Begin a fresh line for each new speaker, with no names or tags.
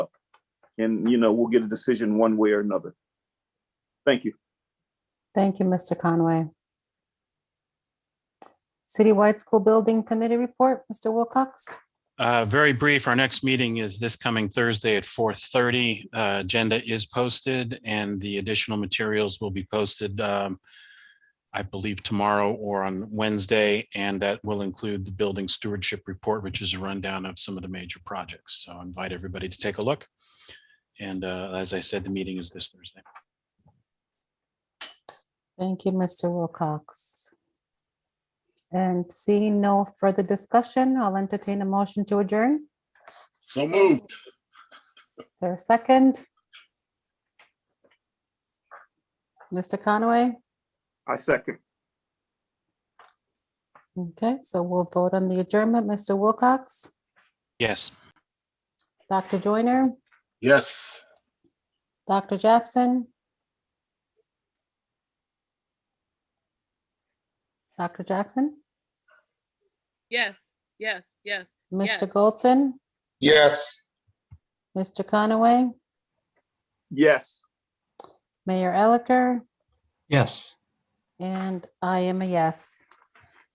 and, you know, we'll get a decision one way or another. Thank you.
Thank you, Mr. Conway. Citywide School Building Committee report, Mr. Wilcox.
Uh, Very brief, our next meeting is this coming Thursday at 4:30. Uh, Agenda is posted and the additional materials will be posted, um, I believe tomorrow or on Wednesday, and that will include the building stewardship report, which is a rundown of some of the major projects. So I invite everybody to take a look. And uh, as I said, the meeting is this Thursday.
Thank you, Mr. Wilcox. And seeing no further discussion, I'll entertain a motion to adjourn.
So moved.
Is there a second? Mr. Conway?
I second.
Okay, so we'll vote on the adjournment. Mr. Wilcox,
Yes.
Dr. Joyner,
Yes.
Dr. Jackson? Dr. Jackson?
Yes, yes, yes. Yes.
Mr. Goldson?
Yes.
Mr. Conaway?
Yes.
Mayor Elicker?
Yes.
And I am a yes.